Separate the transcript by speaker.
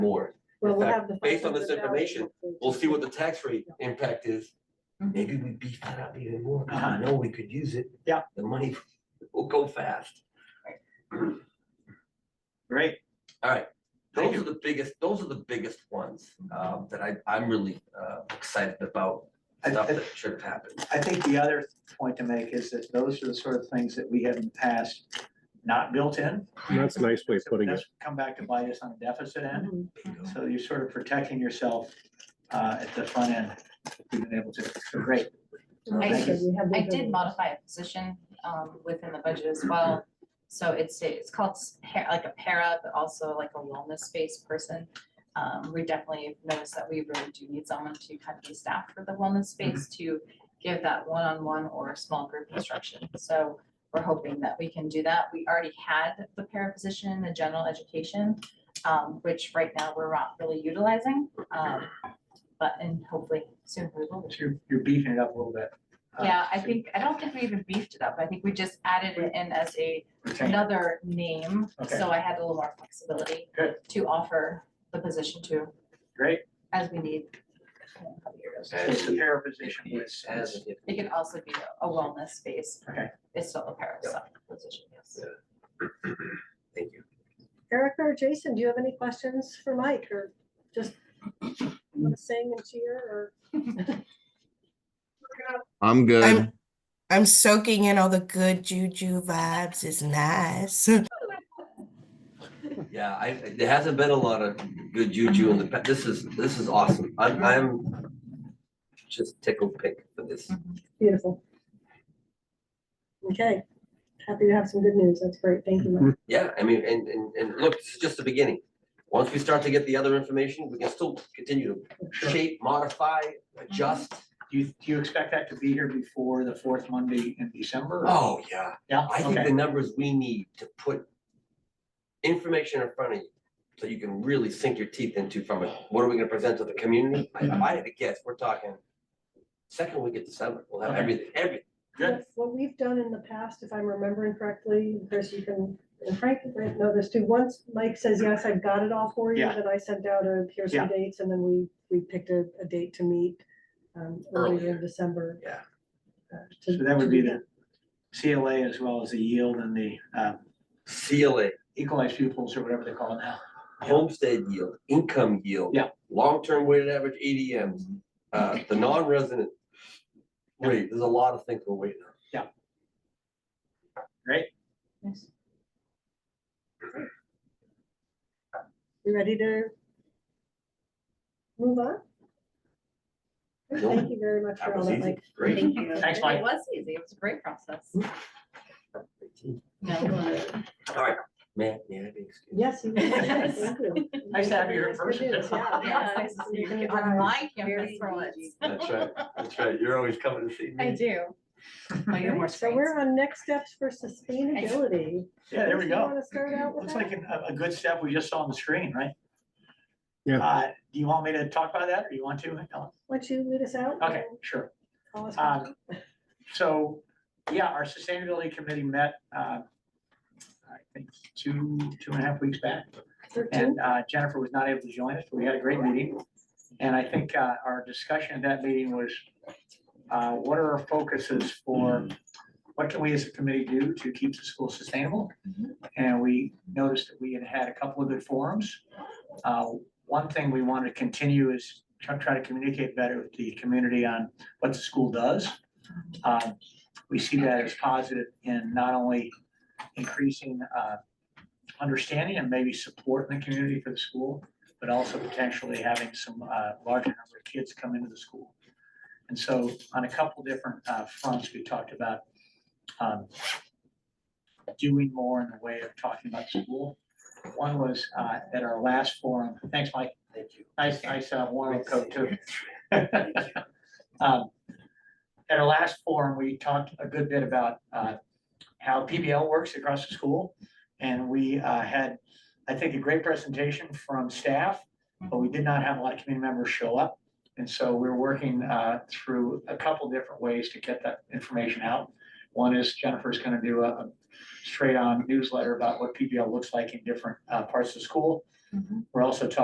Speaker 1: more.
Speaker 2: Well,
Speaker 1: In
Speaker 2: we'll
Speaker 1: fact,
Speaker 2: have the
Speaker 1: based on this
Speaker 2: $500
Speaker 1: information,
Speaker 2: inclusion.
Speaker 1: We'll see what the tax rate impact is.
Speaker 3: Mhm.
Speaker 1: Maybe we beef that up even more. I
Speaker 3: Uh-huh.
Speaker 1: know we could use it.
Speaker 3: Yeah.
Speaker 1: The money will go fast.
Speaker 3: Great.
Speaker 1: All right.
Speaker 3: Thank
Speaker 1: Those
Speaker 3: you.
Speaker 1: are the biggest, those are the biggest ones um, that I, I'm really uh, excited about.
Speaker 3: I-
Speaker 1: Stuff
Speaker 3: I-
Speaker 1: that should have happened.
Speaker 3: I think the other point to make is that those are the sort of things that we have in the past not built in.
Speaker 4: That's a nice way of putting it.
Speaker 3: That's Come back to bite us on the deficit end.
Speaker 5: Mm-hmm.
Speaker 2: Mhm.
Speaker 3: So you're sort of protecting yourself uh, at the front end, if you've been able to. So Great.
Speaker 2: Okay, so we have the
Speaker 5: I did
Speaker 2: ability.
Speaker 5: modify a position um within the budget as well. So it's it's called s- pa- like a para, but also like a wellness-based person. Um, we definitely noticed that we really do need someone to kind of be staffed for the wellness space to give that one-on-one or small group instruction. So we're hoping that we can do that. We already had the para position in the general education, um, which right now we're not really utilizing. Um, but and hopefully soon we will.
Speaker 3: So you're- you're beefing it up a little bit. uh,
Speaker 5: Yeah, I
Speaker 3: to
Speaker 5: think, I don't think we even beefed it up. I think we just added it in as a,
Speaker 3: retain.
Speaker 5: another name.
Speaker 3: Okay.
Speaker 5: So I had a little more flexibility
Speaker 3: Good.
Speaker 5: to offer the position to
Speaker 3: Great.
Speaker 5: as we need. you know, a couple years.
Speaker 3: So it's the para position was, as
Speaker 5: It could also be a wellness space.
Speaker 3: Okay.
Speaker 5: It's still a pair of
Speaker 1: Yeah.
Speaker 5: stuff position, yes.
Speaker 1: Thank you.
Speaker 2: Erica or Jason, do you have any questions for Mike or just wanna sing and cheer or?
Speaker 6: I'm good.
Speaker 7: I'm I'm soaking in all the good juju vibes. It's nice.
Speaker 1: Yeah, I, there hasn't been a lot of good juju in the, past. this is, this is awesome. I'm, I'm just tickled pink for this.
Speaker 2: Beautiful. Okay, happy to have some good news. That's great. Thank you, Mike.
Speaker 1: Yeah, I mean, and, and, and look, this is just the beginning. Once we start to get the other information, we can still continue to shape, modify,
Speaker 3: Mm-hmm.
Speaker 1: adjust.
Speaker 3: Do you, do you expect that to be here before the fourth Monday in December? or-
Speaker 1: Oh, yeah.
Speaker 3: Yeah,
Speaker 1: I think
Speaker 3: okay.
Speaker 1: the numbers we need to put information in front of you, so you can really sink your teeth into from it. What are we gonna present to the community? I,
Speaker 3: Mm-hmm.
Speaker 1: if I had to guess, we're talking second week of December, we'll have
Speaker 3: Okay.
Speaker 1: everything, everything.
Speaker 3: Good.
Speaker 2: What we've done in the past, if I'm remembering correctly, Chris, you can, and Frank, might know this too. Once Mike says, yes, I've got it all for you,
Speaker 3: Yeah.
Speaker 2: then I sent out a, here's
Speaker 3: Yeah.
Speaker 2: some dates and then we, we picked a, a date to meet um, earlier
Speaker 1: Earlier.
Speaker 2: in December.
Speaker 1: Yeah.
Speaker 2: uh, to-
Speaker 3: So that
Speaker 2: to
Speaker 3: would be
Speaker 2: do
Speaker 3: the CLA as well as the yield and the uh,
Speaker 1: CLA,
Speaker 3: equalized pupils or whatever they call it now.
Speaker 1: homestead yield, income yield.
Speaker 3: Yeah.
Speaker 1: Long-term weighted average ADMs, uh, the non-resident. Wait, there's a lot of things we're waiting on.
Speaker 5: Yes.
Speaker 2: You ready to move on? Thank you very much for
Speaker 1: That
Speaker 2: all
Speaker 1: was
Speaker 2: that,
Speaker 1: easy,
Speaker 2: Mike.
Speaker 1: great.
Speaker 5: Thank you.
Speaker 3: Thanks, Mike. Mm-hmm.
Speaker 5: It was easy. It was a great process. No,
Speaker 1: All right, man, yeah, I think.
Speaker 2: Yes. you-
Speaker 5: Yes.
Speaker 2: Thank you.
Speaker 3: Nice to have you here in
Speaker 2: Nice good
Speaker 3: person.
Speaker 2: news, yeah,
Speaker 5: yeah,
Speaker 2: yeah.
Speaker 5: it's nice to see
Speaker 2: You're
Speaker 5: you
Speaker 2: gonna
Speaker 5: on
Speaker 2: drive.
Speaker 5: my
Speaker 2: Very
Speaker 5: campus for once.
Speaker 2: easy.
Speaker 1: That's right, that's right, you're always coming to see me.
Speaker 5: I do. Oh, you're more
Speaker 2: Alright, So
Speaker 5: screens.
Speaker 2: we're on next steps for sustainability.
Speaker 3: Yeah, there
Speaker 2: Chris,
Speaker 3: we
Speaker 2: you
Speaker 3: go.
Speaker 2: wanna start out with
Speaker 3: Looks
Speaker 2: that?
Speaker 3: like a, a good step we just saw on the screen, right?
Speaker 4: Yeah.
Speaker 3: Uh, Do you want me to talk about that or you want to? Ellen?
Speaker 2: Why don't you lead us out?
Speaker 3: Okay,
Speaker 2: and
Speaker 3: sure.
Speaker 2: call us back?
Speaker 3: Um, So, yeah, our sustainability committee met, uh, I think, two, two and a half weeks back.
Speaker 2: Thirteen?
Speaker 3: And uh, Jennifer was not able to join us, but we had a great meeting. And I think uh, our discussion at that meeting was, uh, what are our focuses for, what can we as a committee do to keep the school sustainable? And we noticed that we had had a couple of good forums. Uh, One thing we want to continue is try try to communicate better with the community on what the school does. Um, We see that as positive in not only increasing uh, understanding and maybe support in the community for the school, but also potentially having some uh, larger number of kids come into the school. And so on a couple different uh, fronts, we talked about um, doing more in the way of talking about school. One was uh, at our last forum, thanks, Mike. Thank you. Nice, nice uh, warm coat too. Um, At our last forum, we talked a good bit about uh, how PBL works across the school. And we uh, had, I think, a great presentation from staff, but we did not have a lot of community members show up. And so we're working uh, through a couple different ways to get that information out. One is Jennifer's going to do a a straight-on newsletter about what PBL looks like in different uh, parts of the school.
Speaker 5: Mhm.
Speaker 3: We're also talking